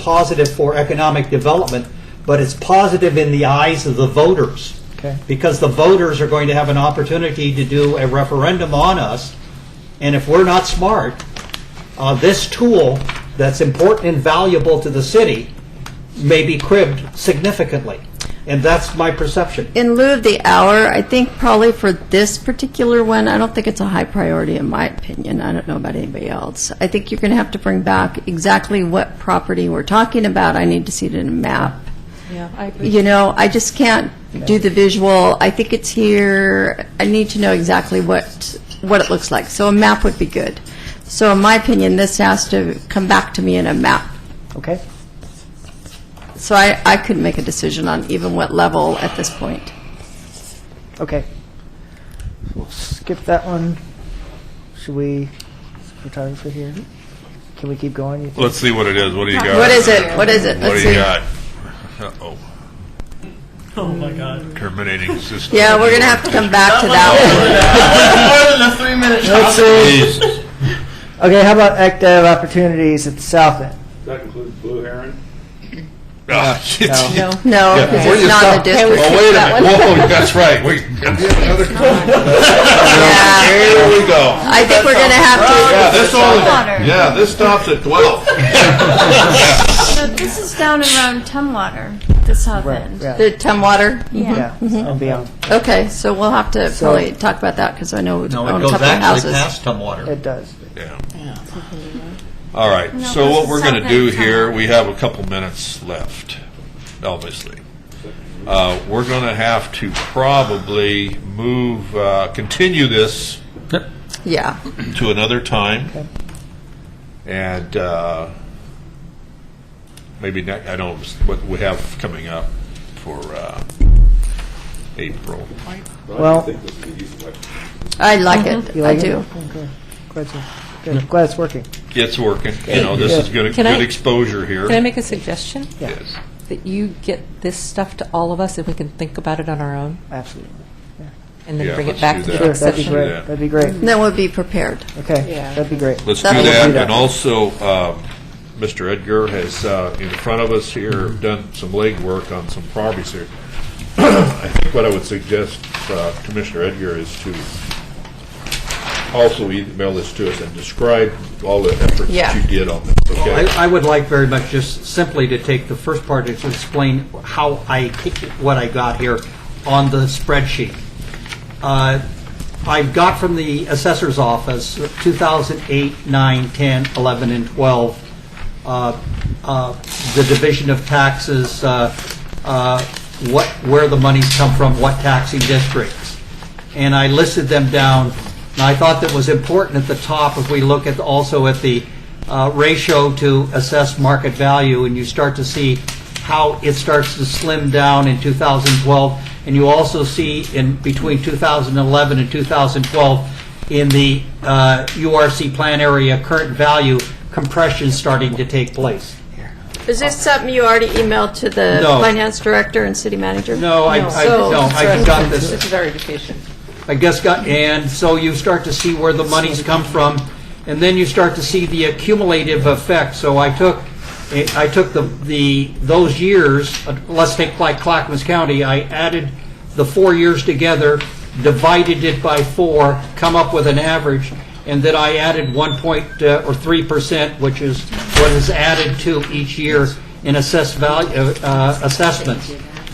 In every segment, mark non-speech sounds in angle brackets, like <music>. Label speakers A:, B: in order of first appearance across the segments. A: positive for economic development, but it's positive in the eyes of the voters.
B: Okay.
A: Because the voters are going to have an opportunity to do a referendum on us, and if we're not smart, uh, this tool that's important and valuable to the city may be cribbed significantly. And that's my perception.
C: in lieu of the hour, I think probably for this particular one, I don't think it's a high priority in my opinion. I don't know about anybody else. I think you're going to have to bring back exactly what property we're talking about. I need to see it in a map.
D: Yeah, I agree.
C: You know, I just can't do the visual. I think it's here. I need to know exactly what, what it looks like. So a map would be good. So in my opinion, this has to come back to me in a map.
B: Okay?
C: So I, I couldn't make a decision on even what level at this point.
B: Okay. So we'll skip that one. Should we, photographer here? Can we keep going? you think?
E: Let's see what it is. What do you got?
C: What is it? What is it?
E: What
C: Let's
E: do you
C: see.
E: got? Uh-oh.
F: Oh my god. <laughs>
E: Terminating system.
C: Yeah, we're gonna have to come back to
F: More
C: that
F: than a three minute
B: Let's see.
E: Jesus.
B: Okay, how about active opportunities at the south end?
G: That includes Blue Heron?
E: Ah, shit.
B: No.
C: one. No,
E: Yeah.
C: because
E: Where
C: it's
E: you
C: not in the
E: stop?
C: district.
E: Oh, wait a minute. Whoa, that's right. Wait, can we have another?
C: Yeah.
E: There we go.
C: I think we're gonna have
E: Yeah, this only, yeah, this stops at 12.
H: So this is down around Tumwater, the south end.
B: Yeah,
C: to, the Tumwater?
H: Yeah.
B: yeah, and beyond.
C: Okay, so we'll have to
B: So-
C: probably talk about that, because I know we
A: No,
C: own
A: it
C: a
A: goes
C: couple of
A: actually
C: houses.
A: past Tumwater.
B: It does.
E: Yeah. All right,
H: No,
E: so
H: this
E: what
H: is
E: we're going to
H: something
E: do
H: coming.
E: here, we have a couple minutes left, obviously. Uh, We're going to have to probably move, uh, continue this
C: Yeah,
E: to another time. And uh, maybe, ne- I don't, what we have coming up for uh, April.
B: Well,
C: I like
A: Mm-hmm.
C: it,
B: You
C: I
B: like it?
C: do.
B: glad it's- good. glad it's working.
E: It's working, you know, this is good,
D: Can I-
E: good exposure here.
D: Can I make a suggestion?
E: Yes.
D: That you get this stuff to all of us and we can think about it on our own
B: Absolutely.
D: and then
E: Yeah,
D: bring it
E: let's
D: back
E: do
D: to
E: that.
D: the
B: Sure,
D: next
B: that'd be
D: session.
B: great,
E: Yeah.
B: that'd be great.
C: Then we'll be prepared.
B: Okay,
D: Yeah.
B: that'd be great.
E: Let's do
C: That'll
E: that,
B: do that.
E: and also, um, Mr. Edgar has, uh, in front of us here, done some legwork on some properties here. <clears throat> I think what I would suggest, uh, Commissioner Edgar, is to also email this to us and describe all the effort
C: Yeah.
E: that you did on this, okay?
A: I, I would like very much just simply to take the first part to explain how I, what I got here on the spreadsheet. Uh, I got from the assessor's office, 2008, 9, 10, 11, and 12, uh, uh, the division of taxes, uh, uh, what, where the monies come from, what taxing districts. And I listed them down, and I thought that was important at the top, if we look at, also at the uh, ratio to assess market value, and you start to see how it starts to slim down in 2012, and you also see in between 2011 and 2012, in the uh, URC plan area, current value compression starting to take place.
C: Is this something you already emailed to the
A: No.
C: finance director and city manager?
A: No, I, I,
C: So-
A: no, I got
D: It's
A: this,
D: verification.
A: I guess got, and so you start to see where the money's come from, and then you start to see the accumulative effect. So I took, I took the, the, those years, uh, let's take like Clackamas County, I added the four years together, divided it by four, come up with an average, and then I added one point, uh, or three percent, which is what is added to each year in assessed value, uh, uh, assessments,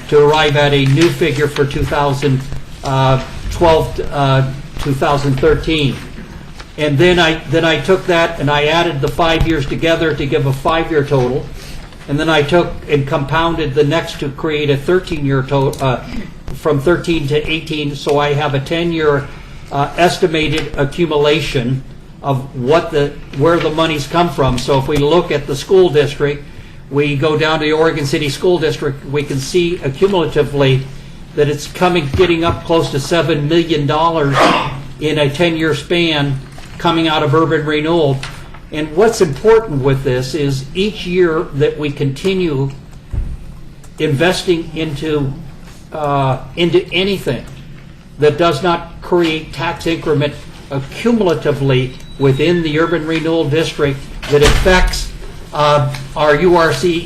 A: to arrive at a new figure for 2012, uh, 2013. And then I, then I took that and I added the five years together to give a five-year total. And then I took and compounded the next to create a 13-year total, uh, from 13 to 18, so I have a 10-year uh, estimated accumulation of what the, where the money's come from. So if we look at the school district, we go down to the Oregon City School District, we can see accumulatively that it's coming, getting up close to $7 million in a 10-year span coming out of urban renewal. And what's important with this is each year that we continue investing into, uh, into anything that does not create tax increment accumulatively within the urban renewal district that affects uh, uh, our URC